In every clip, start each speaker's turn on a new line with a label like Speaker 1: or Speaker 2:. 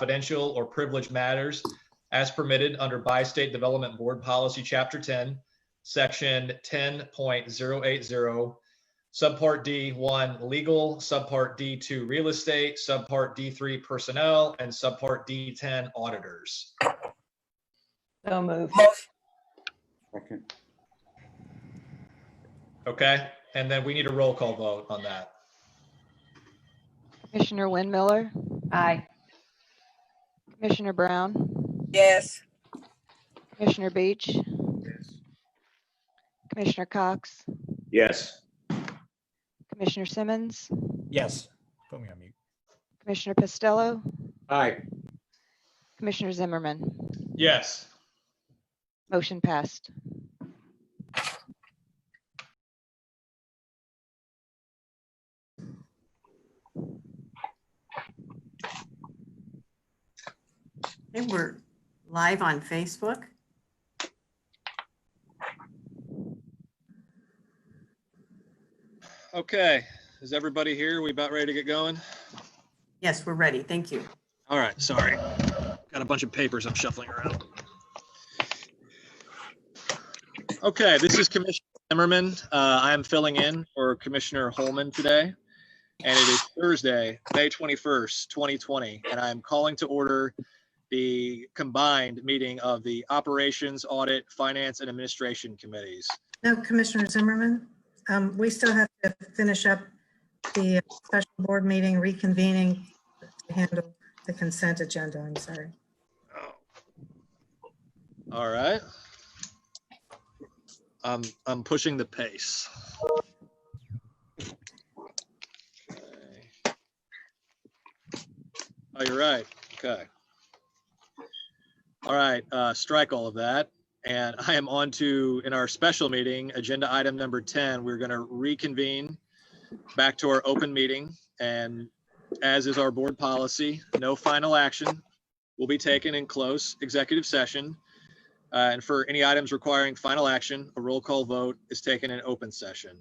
Speaker 1: confidential, or privileged matters as permitted under Bi-State Development Board Policy, Chapter 10, Section 10.080, Subpart D1 Legal, Subpart D2 Real Estate, Subpart D3 Personnel, and Subpart D10 Auditors.
Speaker 2: So moved.
Speaker 3: Second.
Speaker 1: Okay? And then we need a roll call vote on that.
Speaker 4: Commissioner Winmiller,
Speaker 2: Aye.
Speaker 4: Commissioner Brown,
Speaker 5: Yes.
Speaker 4: Commissioner Beach, Commissioner Cox,
Speaker 3: Yes.
Speaker 4: Commissioner Simmons,
Speaker 6: Yes. Put me on mute.
Speaker 4: Commissioner Pistello,
Speaker 3: Aye.
Speaker 4: Commissioner Zimmerman.
Speaker 1: Yes.
Speaker 4: Motion passed.
Speaker 7: They were live on Facebook.
Speaker 8: Okay, is everybody here? We about ready to get going?
Speaker 7: Yes, we're ready. Thank you.
Speaker 8: All right, sorry. Got a bunch of papers I'm shuffling around. Okay, this is Commissioner Zimmerman. Uh, I am filling in for Commissioner Holman today. And it is Thursday, May 21st, 2020, and I am calling to order the combined meeting of the Operations, Audit, Finance, and Administration Committees.
Speaker 9: No, Commissioner Zimmerman, um, we still have to finish up the special board meeting reconvening to handle the consent agenda. I'm sorry.
Speaker 8: All right. I'm, I'm pushing the pace. Okay. Oh, you're right. Okay. All right, uh, strike all of that. And I am on to, in our special meeting, agenda item number 10, we're going to reconvene back to our open meeting. And as is our board policy, no final action will be taken in close executive session. Uh, And for any items requiring final action, a roll call vote is taken in open session.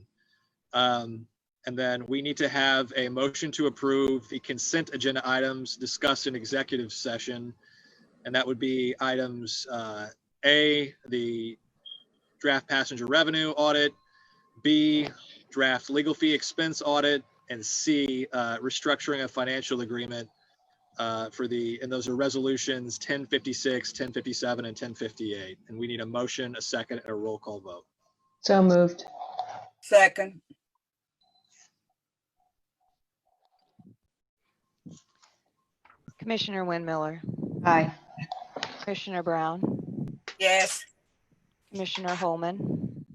Speaker 8: Um, And then we need to have a motion to approve the consent agenda items discussed in executive session. And that would be items uh, A, the draft passenger revenue audit, B, draft legal fee expense audit, and C, uh, restructuring of financial agreement uh, for the, and those are resolutions 1056, 1057, and 1058. And we need a motion, a second, and a roll call vote.
Speaker 2: So moved.
Speaker 5: Second.
Speaker 4: Commissioner Winmiller,
Speaker 2: Aye.
Speaker 4: Commissioner Brown,
Speaker 5: Yes.
Speaker 4: Commissioner Holman,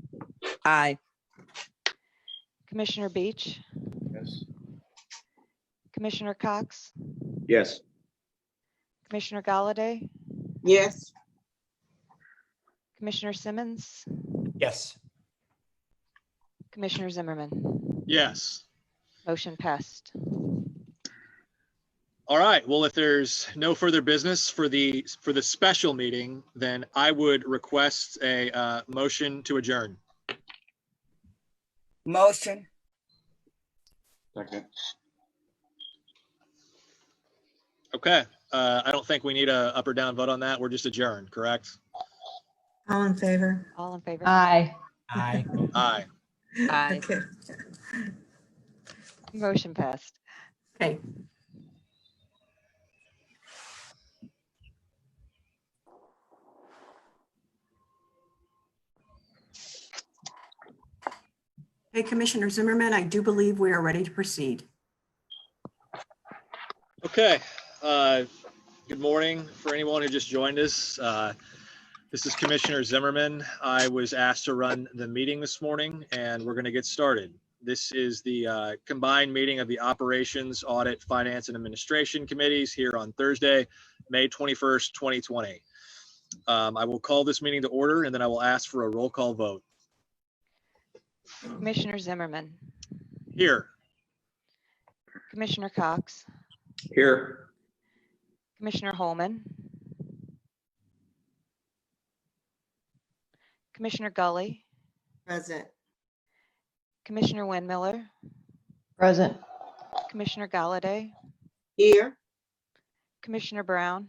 Speaker 5: Aye.
Speaker 4: Commissioner Beach,
Speaker 3: Yes.
Speaker 4: Commissioner Cox,
Speaker 3: Yes.
Speaker 4: Commissioner Galladay,
Speaker 5: Yes.
Speaker 4: Commissioner Simmons,
Speaker 6: Yes.
Speaker 4: Commissioner Zimmerman.
Speaker 8: Yes.
Speaker 4: Motion passed.
Speaker 8: All right. Well, if there's no further business for the, for the special meeting, then I would request a uh, motion to adjourn.
Speaker 5: Motion.
Speaker 3: Second.
Speaker 8: Okay. Uh, I don't think we need a up or down vote on that. We're just adjourned, correct?
Speaker 9: All in favor?
Speaker 4: All in favor?
Speaker 2: Aye.
Speaker 6: Aye.
Speaker 8: Aye.
Speaker 5: Aye.
Speaker 9: Okay.
Speaker 4: Motion passed.
Speaker 7: Okay. Hey, Commissioner Zimmerman, I do believe we are ready to proceed.
Speaker 8: Okay, uh, good morning for anyone who just joined us. Uh, This is Commissioner Zimmerman. I was asked to run the meeting this morning and we're going to get started. This is the uh, combined meeting of the Operations, Audit, Finance and Administration Committees here on Thursday, May 21st, 2020. Um, I will call this meeting to order and then I will ask for a roll call vote.
Speaker 4: Commissioner Zimmerman,
Speaker 8: Here,
Speaker 4: Commissioner Cox,
Speaker 3: Here.
Speaker 4: Commissioner Holman, Commissioner Gully,
Speaker 7: Present.
Speaker 4: Commissioner Winmiller,
Speaker 2: Present.
Speaker 4: Commissioner Galladay,
Speaker 5: Here.
Speaker 4: Commissioner Brown?